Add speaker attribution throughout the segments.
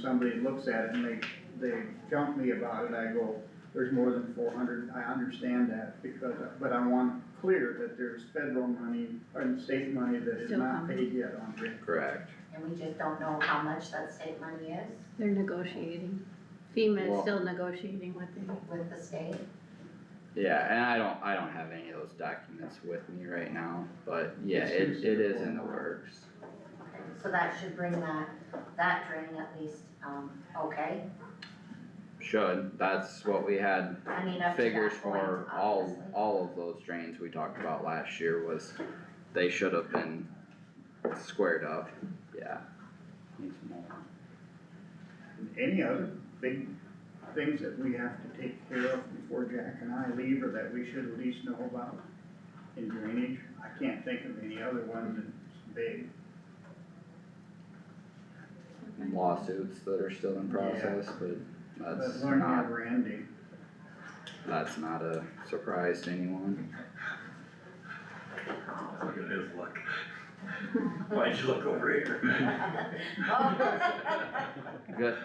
Speaker 1: somebody looks at it and they, they jump me about it, I go, there's more than four hundred, I understand that because, but I want clear that there's federal money and state money that is
Speaker 2: Still
Speaker 1: not
Speaker 2: coming.
Speaker 1: paid yet on grant.
Speaker 3: Correct.
Speaker 4: and we just don't know how much that state money is
Speaker 2: They're negotiating. FEMA
Speaker 3: Well-
Speaker 2: is still negotiating what they,
Speaker 4: with the state.
Speaker 3: Yeah, and I don't, I don't have any of those documents with me right now, but yeah,
Speaker 1: It's
Speaker 3: it, it is
Speaker 1: useful.
Speaker 3: in the works.
Speaker 4: Okay, So that should bring that, that drain at least, um, okay,
Speaker 3: Should, that's what we had
Speaker 4: I mean, up to
Speaker 3: figures
Speaker 4: that point,
Speaker 3: for all,
Speaker 4: obviously.
Speaker 3: all of those drains we talked about last year was, they should have been squared up, yeah. Need some more.
Speaker 1: Any other big things that we have to take care of before Jack and I leave or that we should at least know about in drainage? I can't think of any other one that's big.
Speaker 3: Lawsuits that are still in process, but
Speaker 1: But
Speaker 3: that's
Speaker 1: learn
Speaker 3: not,
Speaker 1: never ending.
Speaker 3: that's not a surprise to anyone.
Speaker 5: Look at his look. Why'd you look over here?
Speaker 4: Oh.
Speaker 3: Good,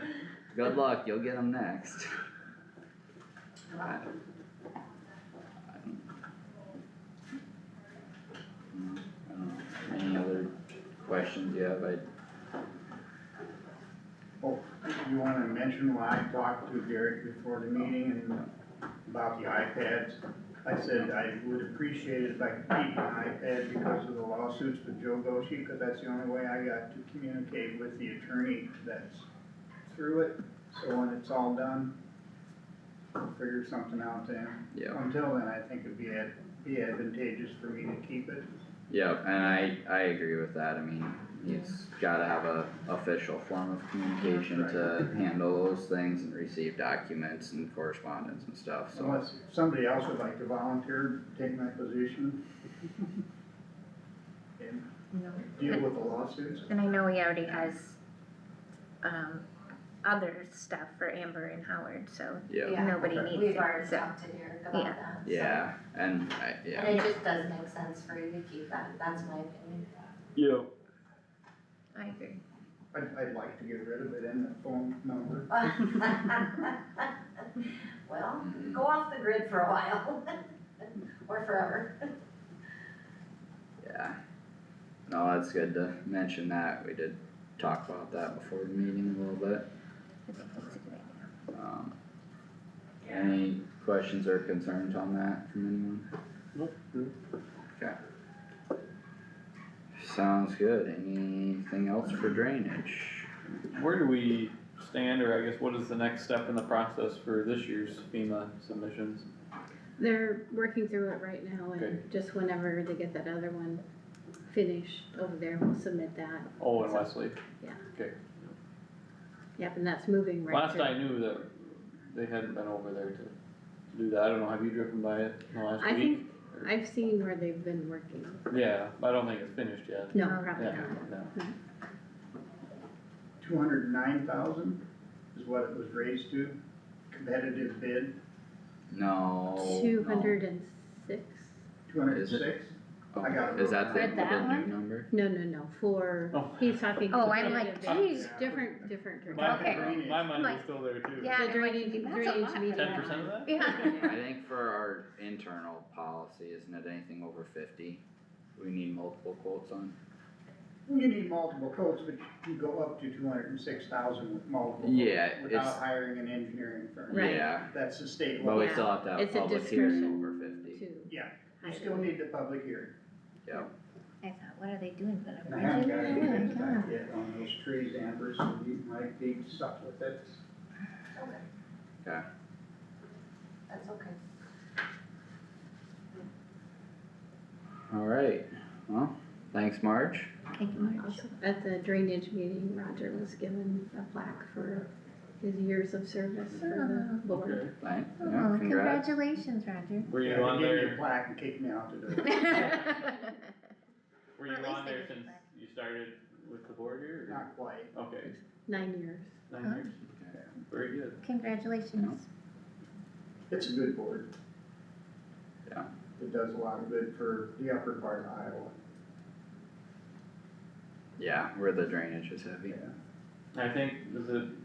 Speaker 3: good luck, you'll get them next. I- I don't- Mm, I don't know. Any other questions you have? I,
Speaker 1: You wanna mention when I talked to Derek before the meeting and about the iPads? I said I would appreciate it if I could keep an iPad because of the lawsuits with Joe Goshi, cause that's the only way I got to communicate with the attorney that's through it. So when it's all done, we'll figure something out then.
Speaker 3: yeah,
Speaker 1: Until then, I think it'd be ad- be advantageous for me to keep it.
Speaker 3: yeah, and I, I agree with that. I mean, he's gotta have a official form of communication to handle those things and receive documents and correspondence and stuff, so.
Speaker 1: Unless somebody else would like to volunteer, take my position. And
Speaker 6: No.
Speaker 1: deal with the lawsuits.
Speaker 6: And I know he already has, um, other stuff for Amber and Howard, so
Speaker 3: Yeah,
Speaker 4: Yeah.
Speaker 6: nobody needs it,
Speaker 4: We've already
Speaker 6: so.
Speaker 4: talked to Derek about
Speaker 6: Yeah.
Speaker 4: that. so-
Speaker 3: yeah, and I, yeah.
Speaker 4: And it just does make sense for you to keep that, that's my opinion.
Speaker 3: Yeah.
Speaker 6: I agree.
Speaker 1: I'd, I'd like to get rid of it and the phone number.
Speaker 4: Well,
Speaker 3: Mm-hmm.
Speaker 4: go off the grid for a while, or forever.
Speaker 3: Yeah. No, that's good to mention that. We did talk about that before the meeting a little bit.
Speaker 6: I think that's a good idea.
Speaker 3: Um, any questions or concerns on that from anyone? Okay. Sounds good. Anything else for drainage?
Speaker 7: Where do we stand, or I guess what is the next step in the process for this year's FEMA submissions?
Speaker 2: they're working through it right now
Speaker 7: Okay.
Speaker 2: and just whenever they get that other one finished over there, we'll submit that.
Speaker 7: Oh, and Wesley.
Speaker 2: Yep, and that's moving right
Speaker 7: Last
Speaker 2: through.
Speaker 7: I knew that they hadn't been over there to to do that. I don't know, have you driven by it in the
Speaker 2: I
Speaker 7: last week?
Speaker 2: think, I've seen where they've been working.
Speaker 7: Yeah, I don't think it's finished yet.
Speaker 2: No,
Speaker 6: No.
Speaker 2: probably
Speaker 7: Yeah,
Speaker 2: not.
Speaker 7: no.
Speaker 1: Two hundred and nine thousand is what it was raised to, competitive bid,
Speaker 3: No. Oh, no.
Speaker 2: Two hundred and six?
Speaker 1: two hundred and
Speaker 3: Is
Speaker 1: six.
Speaker 3: Oh,
Speaker 1: I got it
Speaker 3: Is that the,
Speaker 2: wrote down. Read that
Speaker 3: the new
Speaker 2: one?
Speaker 3: number?
Speaker 2: No, no, no, for,
Speaker 7: Oh.
Speaker 2: he's talking.
Speaker 6: Oh, I'm like,
Speaker 2: competitive.
Speaker 6: geez,
Speaker 2: Different, different. direct.
Speaker 7: My,
Speaker 1: Okay.
Speaker 7: Oh, my money
Speaker 6: Like-
Speaker 7: was still there too.
Speaker 6: yeah,
Speaker 2: The
Speaker 6: I'm like,
Speaker 2: drainage,
Speaker 6: that's a
Speaker 2: drainage
Speaker 6: lot.
Speaker 2: meeting.
Speaker 7: Ten percent of that?
Speaker 6: yeah.
Speaker 3: I think for our internal policy, isn't it anything over fifty? We need multiple quotes on?
Speaker 1: You need multiple quotes, but you go up to two hundred and six thousand with multiple. quotes
Speaker 3: Yeah, it's-
Speaker 1: Without hiring an engineering firm.
Speaker 2: Right.
Speaker 3: Yeah,
Speaker 1: That's the state
Speaker 3: But
Speaker 1: law.
Speaker 3: we
Speaker 2: Yeah.
Speaker 3: still have to have a
Speaker 2: It's a
Speaker 3: public hearing
Speaker 2: discretion
Speaker 3: over fifty.
Speaker 2: Two.
Speaker 1: Yeah.
Speaker 2: I
Speaker 1: You still
Speaker 2: don't-
Speaker 1: need the public hearing.
Speaker 3: Yep.
Speaker 6: I thought, what are they doing for Oh,
Speaker 1: And I haven't got any bids back
Speaker 6: them?
Speaker 1: yet on those trees, Amber, so you might be stuck with it.
Speaker 4: Okay.
Speaker 3: Okay.
Speaker 4: That's okay.
Speaker 3: Alright, well, thanks Marge.
Speaker 6: Thank you, Marge.
Speaker 2: At the drainage meeting, Roger was given a plaque for his years of service for the board.
Speaker 3: Thanks, yeah,
Speaker 6: Oh,
Speaker 3: congrats.
Speaker 6: congratulations, Roger.
Speaker 7: Were
Speaker 1: Yeah,
Speaker 7: you
Speaker 1: they
Speaker 7: on
Speaker 1: gave me a
Speaker 7: there,
Speaker 1: Plaque and kicked me out the door.
Speaker 6: Or at
Speaker 7: were you
Speaker 6: least
Speaker 7: on
Speaker 6: they
Speaker 7: there
Speaker 6: did
Speaker 7: since
Speaker 6: that.
Speaker 7: you started with the board here?
Speaker 1: Not quite.
Speaker 7: or- Okay,
Speaker 2: Nine years.
Speaker 7: nine
Speaker 6: Huh?
Speaker 7: years. Very good.
Speaker 6: Congratulations.
Speaker 1: It's a good board.
Speaker 3: Yeah.
Speaker 1: It does a lot of good for the upper part of Iowa.
Speaker 3: Yeah, where the drainage is heavy.
Speaker 7: I think, was it